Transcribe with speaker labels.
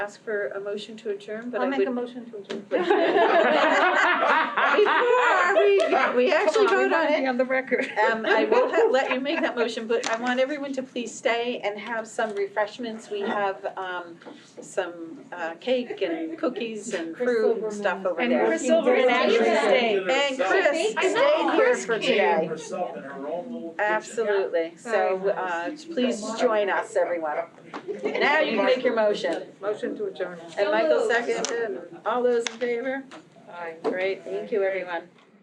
Speaker 1: ask for a motion to adjourn, but I
Speaker 2: I'll
Speaker 1: would.
Speaker 2: make a motion to adjourn.
Speaker 1: Before we, we actually vote on it,
Speaker 2: On the record.
Speaker 1: um, I will ha- let you make that motion, but I want everyone to please stay and have some refreshments. We have, um, some, uh, cake and cookies and
Speaker 2: Chris
Speaker 1: fruit and
Speaker 2: Silverman.
Speaker 1: stuff over
Speaker 3: And
Speaker 1: there.
Speaker 3: Chris Silverman
Speaker 2: actually
Speaker 3: stayed.
Speaker 1: And Chris
Speaker 3: I know,
Speaker 1: stayed here
Speaker 3: Chris
Speaker 1: for
Speaker 3: came.
Speaker 1: today.
Speaker 4: Herself in her own little kitchen.
Speaker 1: Absolutely, so, uh, please join us, everyone. Now
Speaker 2: Now
Speaker 1: you can make your motion.
Speaker 2: Motion to adjourn.
Speaker 1: And Michael seconded, all those in favor? Great, thank you, everyone.